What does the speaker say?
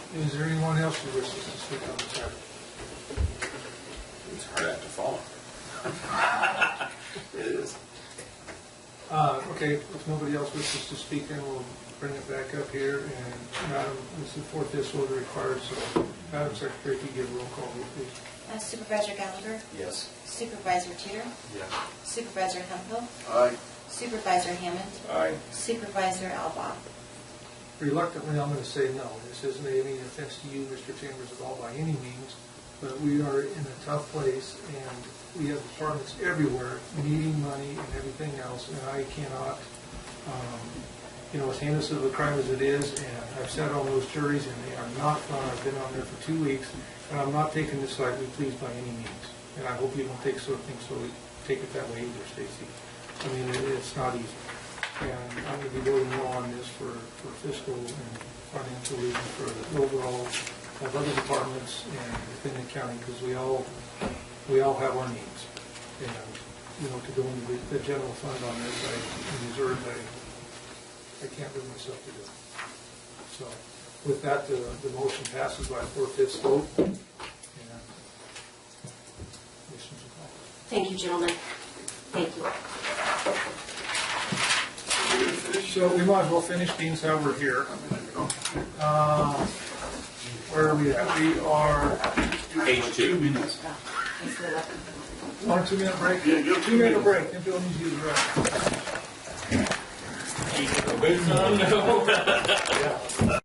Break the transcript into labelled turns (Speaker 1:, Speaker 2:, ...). Speaker 1: Is there anyone else who wishes to speak on this item?
Speaker 2: It's hard act to follow. It is.
Speaker 1: Uh, Okay, if nobody else wishes to speak, then we'll bring it back up here, and um, Madam, this is fourth this order requires, so Madam Secretary, if you give a roll call, vote, please.
Speaker 3: Uh, Supervisor Gallagher,
Speaker 2: Yes.
Speaker 3: Supervisor Teeter,
Speaker 2: Yes.
Speaker 3: Supervisor Hempel,
Speaker 2: Aye.
Speaker 3: Supervisor Hammond,
Speaker 2: Aye.
Speaker 3: Supervisor Alba.
Speaker 1: Reluctantly, I'm going to say no. This isn't any offense to you, Mr. Chambers, at all by any means, but we are in a tough place, and we have departments everywhere needing money and everything else, and I cannot, um, you know, as heinous of a crime as it is, and I've sat on those juries, and they are not fun. I've been on there for two weeks, and I'm not taking this lightly, please, by any means. And I hope you don't take so, think so, take it that way either, Stacy. I mean, it- it's not easy. And I'm going to be voting no on this for for fiscal and financial reasons for the overall of other departments and within the county, because we all, we all have our needs. And, you know, to go into the- the general fund on this, I reserve, I, I can't bring myself to do it. So with that, the, the motion passes by four-fifths vote. And Commissioner Zukow.
Speaker 4: Thank you, gentlemen. Thank you.
Speaker 1: So we might as well finish things how we're here. Uh, Where are we at? We are
Speaker 2: Page two.
Speaker 5: minutes.
Speaker 1: on a two-minute break.
Speaker 5: Yeah, go two
Speaker 1: Two-minute break, and Bill needs you to drive.